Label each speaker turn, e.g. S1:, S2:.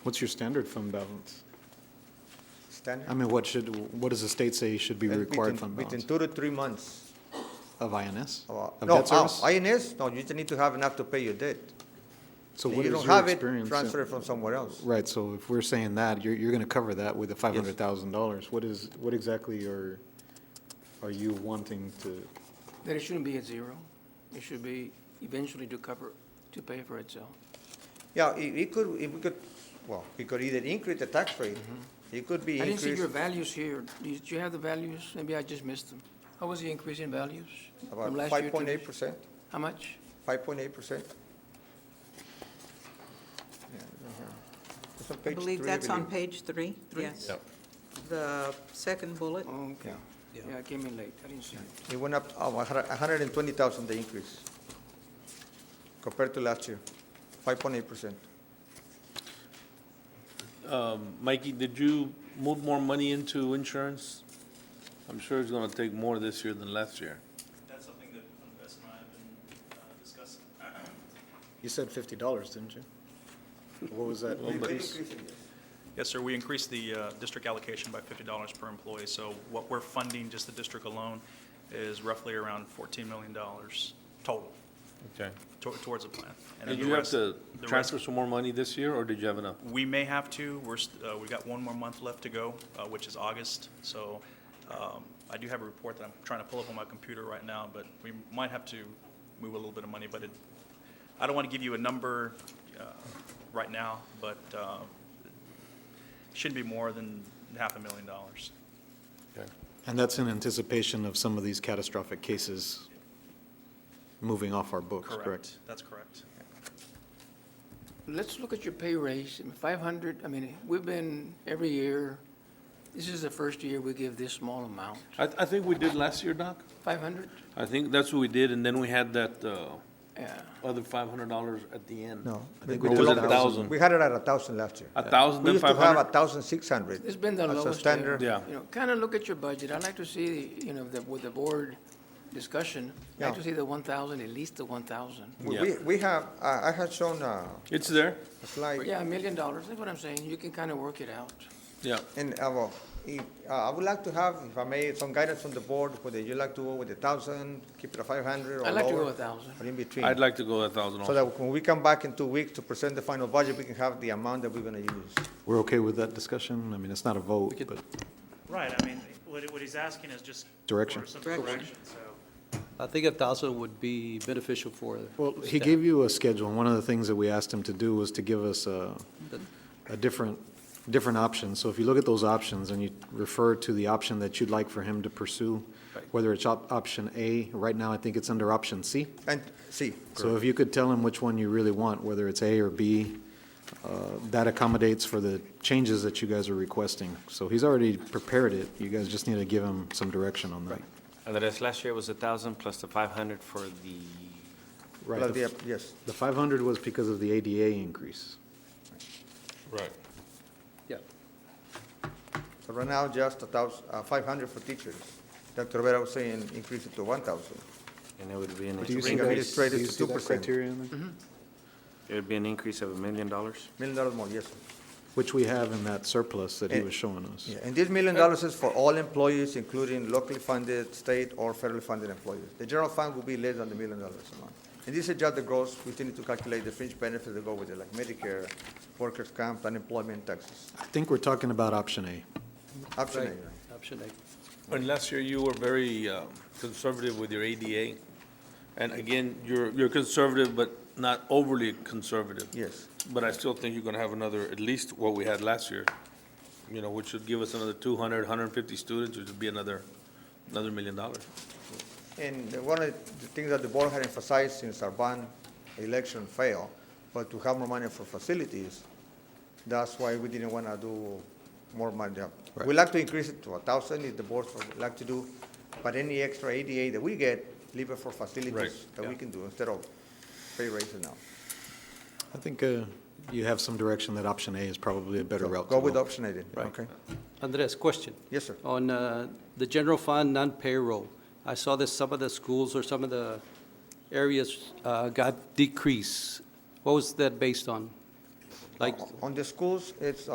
S1: What's your standard fund balance?
S2: Standard?
S1: I mean, what should, what does the state say should be
S2: Uh,
S1: required
S2: within-
S1: fund
S2: Within
S1: balance?
S2: two to three months.
S1: Of INS?
S2: Uh,
S1: Of
S2: No,
S1: debt service?
S2: uh, INS, no, you just need to have enough to pay your debt.
S1: So
S2: If
S1: what
S2: you
S1: is
S2: don't
S1: your
S2: have it,
S1: experience?
S2: Transfer it from somewhere else.
S1: Right, so if we're saying that, you're, you're gonna cover that with the five hundred thousand dollars. What is, what exactly are, are you wanting to?
S3: That it shouldn't be at zero. It should be eventually to cover, to pay for itself.
S2: Yeah, it, it could, if we could, well, we could either increase the tax rate,
S1: Mm-hmm.
S2: it could
S3: I
S2: be
S3: didn't see
S2: increased
S3: your values here. Did you have the values? Maybe I just missed them. How was the increase in values? from
S2: about
S3: last year
S2: five
S3: to
S2: point eight
S3: this?
S2: percent,
S3: How much?
S2: five point eight percent. It's on
S4: I
S2: uh-huh. page
S4: believe
S2: three,
S4: that's on
S2: believe.
S4: page three, yes. The second bullet,
S3: Oh, okay.
S4: Yeah.
S3: Yeah, I came in late. I didn't see it.
S2: It went up, oh, a hundred and twenty thousand, the increase, compared to last year, five point eight percent.
S5: Mikey, did you move more money into insurance? I'm sure it's gonna take more this year than last year.
S6: That's something that Andres and I have been uh, discussing.
S1: You said fifty dollars, didn't you? What was that?
S5: Well, but-
S6: Yes, sir, we increased the uh, district allocation by $50 per employee, so what we're funding, just the district alone, is roughly around $14 million total
S5: Okay.
S6: to- towards the plan. And then
S5: Did
S6: the
S5: you have
S6: rest-
S5: to
S6: the rest-
S5: transfer some more money this year, or did you have enough?
S6: We may have to, we're, st- uh, we've got one more month left to go, uh, which is August, so um, I do have a report that I'm trying to pull up on my computer right now, but we might have to move a little bit of money, but it, I don't want to give you a number uh, right now, but uh, it shouldn't be more than half a million dollars.
S5: Okay.
S1: And that's in anticipation of some of these catastrophic cases moving off our books, correct?
S6: That's correct.
S3: Let's look at your pay raise. I mean, five hundred, I mean, we've been every year, this is the first year we give this small amount.
S5: I, I think we did last year, Doc.
S3: Five hundred?
S5: I think that's what we did, and then we had that, uh,
S3: Yeah.
S5: other five hundred dollars at the end.
S2: No.
S1: I think
S2: we
S1: we
S2: did
S1: did
S2: it
S1: a
S2: at-
S5: thousand.
S2: We had it at a thousand last year.
S5: A thousand,
S2: We
S5: then
S2: used to
S5: five
S2: have a
S5: hundred?
S2: thousand six hundred.
S3: It's been the
S2: As a
S3: lowest. there.
S2: standard.
S5: Yeah.
S3: You know, kind of look at your budget. I'd like to see, you know, the- with the board discussion, I'd like
S2: Yeah.
S3: to see the 1,000, at least the 1,000.
S2: We,
S5: Yeah.
S2: we- we have, I, I had shown uh,
S5: It's there,
S2: a slide,
S3: Yeah, a million dollars, that's what I'm saying. You can kind of work it out.
S5: yeah.
S2: and, uh, well, if, uh, I would like to have, if I may, some guidance from the board, whether you like to go with a thousand, keep it at five hundred or
S3: I'd like to go
S2: lower,
S3: 1,000.
S2: Or in between.
S5: I'd like to go a thousand
S2: So
S5: also.
S2: that when we come back in two weeks to present the final budget, we can have the amount that we're gonna use.
S1: We're okay with that discussion? I mean, it's not a vote, but
S7: Right, I mean, what, what he's asking is just.
S1: Direction.
S7: For some
S4: Direction.
S7: direction, so.
S8: I think a thousand would be beneficial for.
S1: Well, he
S8: staff.
S1: gave you a schedule, and one of the things that we asked him to do was to give us a, a different, different option. So if you look at those options and you refer to the option that you'd like for him to pursue, whether it's op- option A, right now I think it's under option C.
S2: And, see,
S1: So if you could tell him which one you really want, whether it's A or B, uh, that accommodates for the changes that you guys are requesting. So he's already prepared it, you guys just need to give him some direction on that.
S9: Andres, last year was a thousand plus the five hundred for the,
S1: Right.
S2: plus
S1: The
S2: the- yes,
S1: the 500 was because of the ADA increase.
S5: Right.
S8: Yeah.
S2: so right now, just a thousand, uh, five hundred for teachers. Dr. Rivera was saying, increase it to one thousand.
S9: and it would be an,
S1: Do you
S9: it
S1: see
S2: bring
S1: that,
S2: administrators
S1: do you
S2: to
S1: see that Mm-hmm.
S2: 2%.
S1: criteria in there?
S9: would be an increase of a million dollars?
S2: Million dollars more, yes. sir.
S1: Which we have in that surplus that he
S2: Eh,
S1: was showing us.
S2: Yeah, and this million dollars is for all employees, including locally funded, state, or federally funded employees. The general fund will be less than the million dollars amount. And this is just the gross, we still need to calculate the fringe benefits that go with it, like Medicare, workers' comp, unemployment, taxes.
S1: I think we're talking about option A.
S2: Option
S8: Right,
S2: A.
S8: option A.
S5: And last year, you were very um, conservative with your ADA. And again, you're, you're conservative, but not overly conservative.
S2: Yes.
S5: But I still think you're gonna have another, at least what we had last year, you know, which should give us another 200, 150 students, which would be another, another million dollars.
S2: And one of the things that the board had emphasized since our bond election failed, but to have more money for facilities, that's why we didn't want to do more money. We like to increase it to a thousand, if the board would like to do, but any extra ADA that we get, leave it for
S5: Right,
S2: facilities that we
S5: yeah.
S2: can do instead of pay raises now.
S1: I think uh, you have some direction that option A is probably a better
S2: So
S1: route to
S2: Go with
S1: go.
S2: option A then, okay?
S8: Andres, question.
S2: Yes, sir.
S8: On uh, the general fund, non-payroll, I saw that some of the schools or some of the areas uh, got decrease. What was that based on? Like,
S2: On the schools, it's